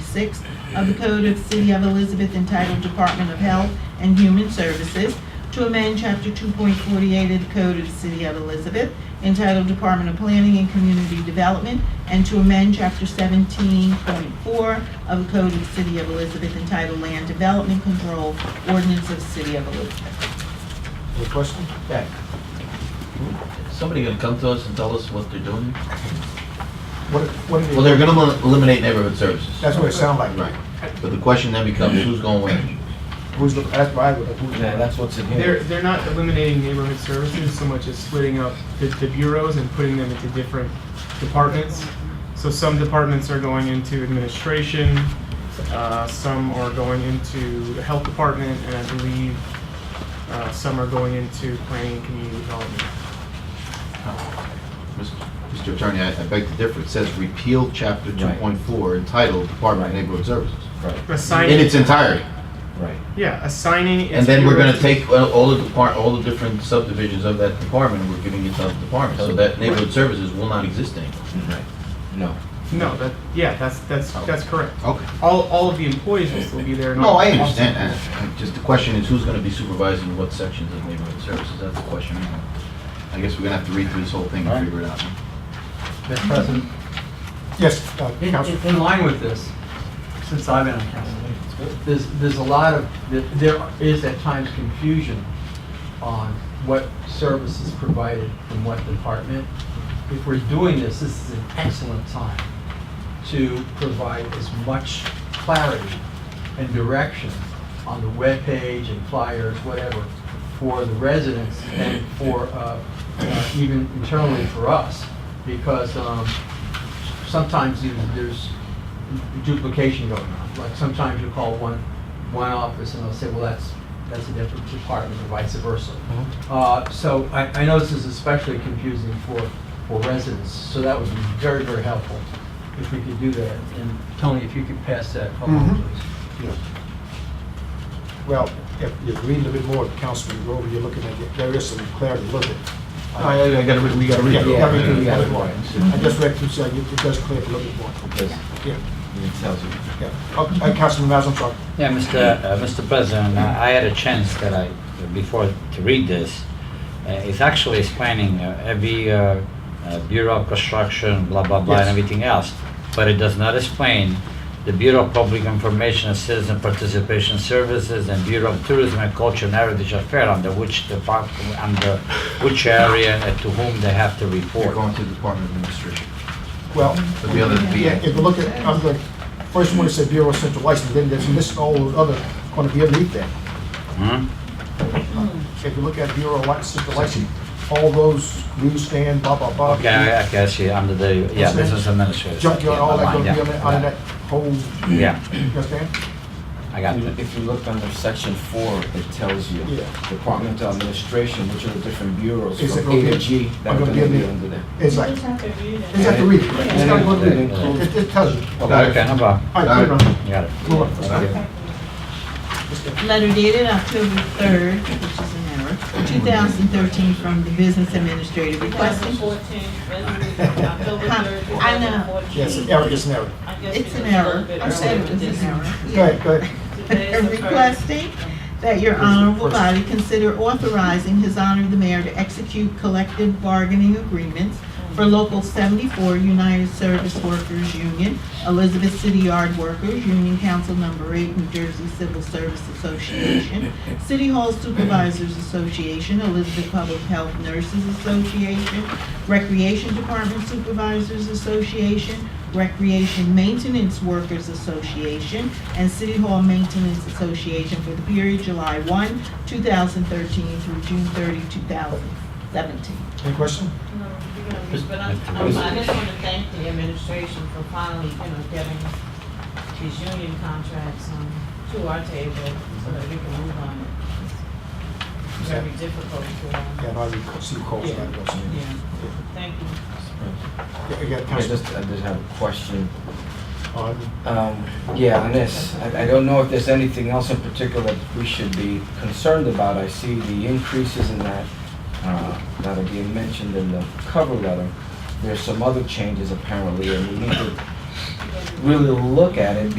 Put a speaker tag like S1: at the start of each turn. S1: six of the Code of the City of Elizabeth entitled Department of Health and Human Services to amend Chapter 2.48 of the Code of the City of Elizabeth entitled Department of Planning and Community Development and to amend Chapter 17.4 of the Code of the City of Elizabeth entitled Land Development Control Ordinance of the City of Elizabeth.
S2: Any questions? Yeah.
S3: Somebody gonna come to us and tell us what they're doing?
S2: What, what are
S3: Well, they're
S2: they,
S3: gonna elim- eliminate neighborhood services.
S2: that's what it sounds like.
S3: Right. But the question then becomes, who's going where?
S2: Who's, the- that's why, I would- who's,
S4: Yeah, that's what's in
S5: They're,
S4: here.
S5: they're not eliminating neighborhood services so much as splitting up the, the bureaus and putting them into different departments. So some departments are going into administration, uh, some are going into the health department, and I believe, uh, some are going into planning and community development.
S3: Mr. Attorney, I I beg to differ. It says repeal chapter
S4: Right.
S3: 2.4 entitled Department of
S4: Right.
S3: Neighborhood Services
S4: Right,
S3: in
S5: Assigning,
S3: its entirety.
S4: right.
S5: yeah, assigning.
S3: And then we're gonna
S5: bureaus-
S3: take all all the depart, all the different subdivisions of that department, and we're giving it to other departments. So that neighborhood services will not exist anymore.
S4: Right. No.
S5: No, that, yeah, that's, that's, that's correct.
S3: Okay.
S5: All, all of the employees will still be there. and
S3: No,
S5: all-
S3: I understand that. Just the question is, who's gonna be supervising what sections of neighborhood services? That's the question. I have. I guess we're gonna have to read through this whole thing and figure it out.
S6: Mr. President,
S2: yes, uh,
S6: in-
S2: Council.
S6: in in line with this, since I've been on council, there's, there's a lot of, there is at times confusion on what service is provided from what department. If we're doing this, this is an excellent time to provide as much clarity and direction on the webpage and flyers, whatever, for the residents and for, uh, uh, even internally for us, because um, sometimes you- there's duplication going on. Like sometimes you call one, one office and they'll say, well, that's, that's a different department, or vice versa.
S2: Mm-hmm.
S6: Uh, So I, I know this is especially confusing for, for residents, so that would be very, very helpful if we could do that. And Tony, if you could pass that along,
S2: Mhm.
S6: please.
S2: Yes. Well, if you read a little bit more, Councilman Grover, you're looking at, it, there is some clarity, look at.
S3: I, I gotta, re- we gotta read
S2: Yeah,
S3: through.
S2: we
S3: it.
S2: gotta read through, we
S4: yeah,
S2: gotta read
S4: yeah.
S2: more. I just read through, so it it does clear up a little bit more.
S4: Because
S2: Yeah,
S4: it tells you.
S2: yeah. Okay, uh, Councilman Mazza, I'm sorry.
S7: Yeah, Mr. uh, Mr. President, I I had a chance that I, before to read this, Uh, it's actually explaining uh, every uh, uh, Bureau of Construction, blah, blah, blah, and
S2: Yes.
S7: everything else, but it does not explain the Bureau of Public Information and Citizen Participation Services and Bureau of Tourism and Culture and Heritage Affairs, under which department, under which area and to whom they have to
S3: We're
S7: report.
S3: going to the Department of Administration.
S2: Well,
S3: But the other,
S2: yeah,
S3: the,
S2: if you look at, I'm going, first one it said Bureau of Central License, then there's this, all those other, gonna be underneath that.
S7: Hmm?
S2: If you look at Bureau of Central License, all those newsstand, blah, blah, blah.
S7: Okay, I I can see, under the, yeah,
S2: What's that?
S7: business administrator.
S2: Junkyard,
S7: Yeah,
S2: all that
S7: never
S2: gonna
S7: mind,
S2: be
S7: yeah,
S2: on that, on that whole, you
S7: Yeah,
S2: understand?
S7: I got it.
S4: If you look under section four, it tells you
S2: Yeah.
S4: Department of Administration, which are the different bureaus
S2: Is
S4: from
S2: it gonna
S4: A
S2: be-
S4: to G that
S2: are
S4: are
S2: gonna
S4: gonna
S2: be in
S4: be
S2: there?
S4: under there.
S2: It's like,
S8: just have to read it.
S2: it's like to read, it. it's gotta go through
S4: It
S2: there.
S4: includes-
S2: It, it tells you.
S7: Okay, no problem.
S2: All right, put it on.
S7: You got it.
S2: Move on.
S7: Thank you.
S1: Letter dated October 3rd, which is an error, 2013, from the business administrator requesting
S8: 2014, resolution, October
S1: Huh,
S8: 3rd,
S1: I know.
S8: 2014.
S2: Yes, it's error, it's an error.
S8: I guess
S1: It's
S8: we
S1: an
S8: just
S1: error.
S8: looked at
S1: I said it was
S8: earlier.
S1: an error.
S2: Go ahead, go ahead.
S8: Today is the first.
S1: Requesting that your honorable body consider authorizing his honor the mayor to execute collective bargaining agreements for Local 74 United Service Workers Union, Elizabeth City Yard Workers, Union Council Number 8, New Jersey Civil Service Association, City Hall Supervisors Association, Elizabeth Public Health Nurses Association, Recreation Department Supervisors Association, Recreation Maintenance Workers Association, and City Hall Maintenance Association for the period July 1, 2013 through June 30, 2017.
S2: Any question?
S8: No, you're gonna read, But I'm- I'm- I just want to thank the administration for finally, you know, getting these union contracts um, to our table so that we can move on it. It's very difficult to, um,
S2: Yeah, no, I rec- see calls, I don't see.
S8: yeah, thank you.
S2: Yeah, You got
S4: I
S2: Councilman,
S4: just, I just have a question.
S2: uh,
S4: Um, Yeah, on this, I I don't know if there's anything else in particular that we should be concerned about. I see the increases in that, uh, that are being mentioned in the cover letter. There's some other changes apparently, and we need to really look at it